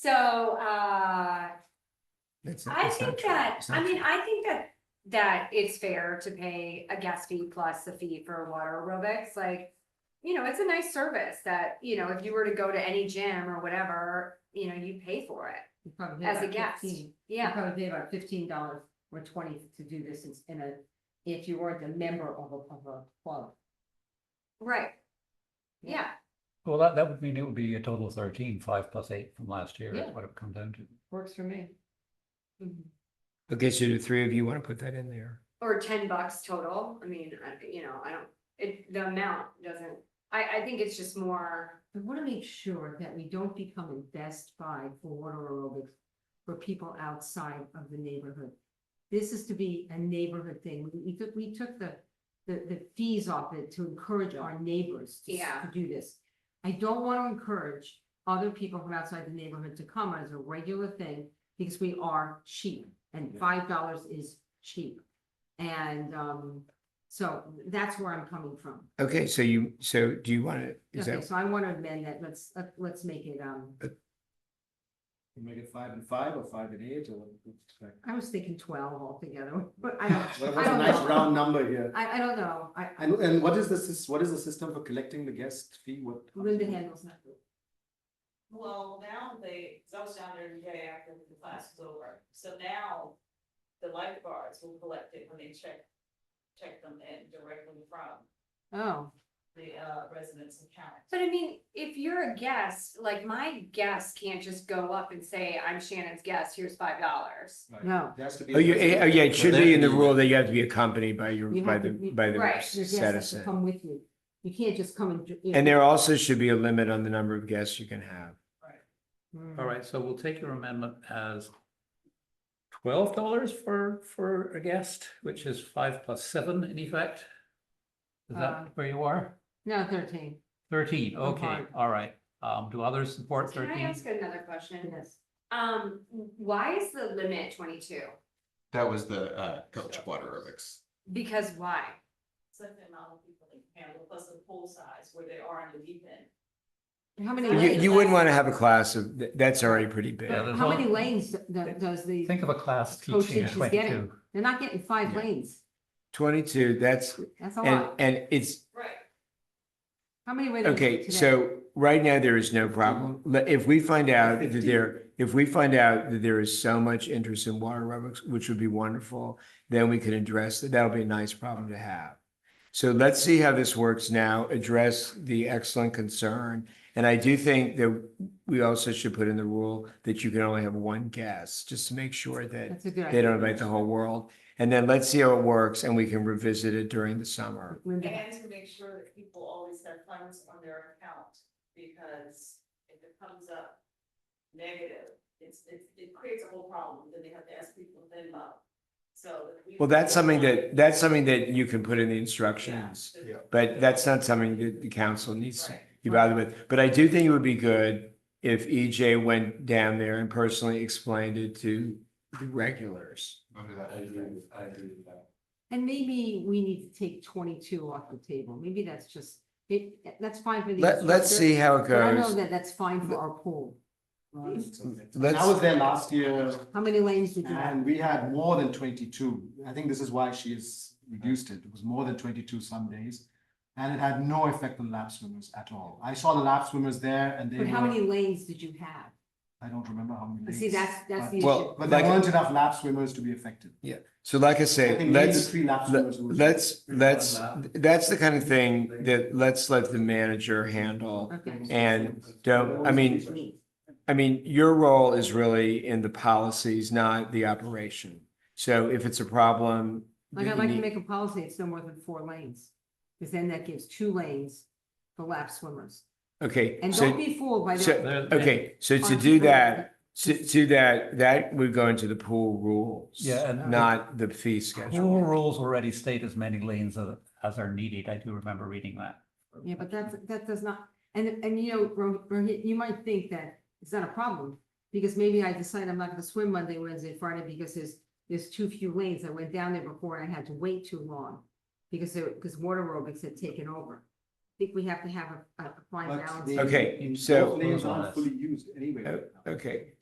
So, uh, That's not- I that's not think true. that, It's I not mean, true. I think that, that it's fair to pay a gas fee plus a fee for water aerobics, like. You know, it's a nice service that, you know, if you were to go to any gym or whatever, you know, you pay for it You probably pay as a about guest, 15. You yeah. probably pay about fifteen dollars or twenty to do this in- in a, if you weren't a member of a, of a club. Right. Yeah. Yeah, Well, that, that would mean it would be a total of thirteen, five plus eight from last year, Yeah. is what it comes down to. Works for me. Okay, so the three of you want to put that in there. or ten bucks total, I mean, I- you know, I don't, it, the amount doesn't, I, I think it's just more. I want to make sure that we don't become a Best Buy for water aerobics for people outside of the neighborhood. This is to be a neighborhood thing. We- We took, we took the, the, the fees off it to encourage our neighbors to s- Yeah. to do this. I don't want to encourage other people from outside the neighborhood to come as a regular thing because we are cheap and Yeah. five dollars is cheap. And, um, so that's where I'm coming from. Okay, so you, so do you want to, is Okay, that, so I want to amend that. Let's, let- let's make it, um, Make it five and five or five and eight or what? it's like- I was thinking twelve altogether, but I don't, Well, I What's a don't nice know. round number here? I, I don't know. I, And, and what is this, what is the system for collecting the guest fee? What? Linda handles that. Well, now they, 'cause I was down there every day after the class was over, so now the lifeguards will collect it when they check, check them in directly from Oh, the uh, residents and county. But I mean, if you're a guest, like my guest can't just go up and say, I'm Shannon's guest, here's five dollars. Like, No. There has to be. oh, you, eh, oh, yeah, it should be in the Well, rule that you have to be accompanied by your, You by have the, to be- by Right, the your guests have to citizen. come with you. You can't just come and. you know. And there also should be a limit on the number of guests you can have. Mm. All right, so we'll take your amendment as twelve dollars for, for a guest, which is five plus seven in effect. Is Uh, that where you are? No, thirteen, Thirteen, I'm okay, fine. all right. Um, do others support Can I thirteen? ask another question? yes. Um, why is the limit twenty-two? That was the uh coach water aerobics. Because why? So the amount of people they can handle, plus the pool size where they are in the evening. How many, Yeah, You, lanes? you wouldn't want to have a class of, th- that's already pretty big. Yeah, there's how many one- lanes do- do- does the, Think of a class Oh, teaching at she's getting- twenty-two. they're not getting five Yeah. lanes. Twenty-two, that's, That's a and, lot. and it's, Right. How many lanes? okay, so right now there is no problem. Le- If we find out that there, if we find out that there is so much interest in water aerobics, which would be wonderful, then we can address that. That'll be a nice problem to have. So let's see how this works now, address the excellent concern. And I do think that we also should put in the rule that you can only have one guest, just to make sure that That's a good they idea. don't invite the whole world. And then let's see how it works and we can revisit it during the summer. Linda, And to make sure that people always have funds on their account, because if it comes up negative, it's, it, it creates a whole problem, then they have to ask people to then up. So. if we- Well, that's something that, that's something that you can put in the instructions, Yeah. but that's not something that the council needs to Right. be bothered with. But I do think it would be good if EJ went down there and personally explained it to the regulars. and maybe we need to take twenty-two off the table. Maybe that's just, it, that's fine for the. Let, let's instructor. see how it But I know goes. that that's fine for our pool. it's okay. And I was Let's, there last year How many lanes did you have? and we had more than twenty-two. I think this is why she has reduced it. It was more than twenty-two some days. And it had no effect on lap swimmers at all. I saw the lap swimmers there and they But how were- many lanes did you have? I don't remember how many. You See, days, that's, that's but- the issue. Well, But there Like- weren't enough lap swimmers to be affected. so like I I say, think maybe let's, three lap le- swimmers would- let's, let's, that's the kind of thing that let's let the manager handle. Okay. And don't, I mean, I mean, your role is really in the policies, not the operation. So if it's a problem. Like, I'd that you like to need- make a policy, it's no more than four lanes, because then that gives two lanes for lap swimmers. Okay, And don't so, be fooled by so- that. There- okay, so to Aren't do you- that, to, to that, that would go into the pool rules. Yeah, and- Not the fee Pool schedule. rules already state as many lanes as, as are needed. I do remember reading that. Yeah, but that's, that does not, and, and you know, Ro- Rohit, you might think that it's not a problem, because maybe I decide I'm not gonna swim Monday, Wednesday, Friday, because there's, there's too few lanes. I went down there before and I had to wait too long, because, there- because water aerobics had taken over. think we have to have a, a fine But balance. they- Okay, in- so- Uh, Those lanes Those aren't ones. fully used anyway. right now. Okay,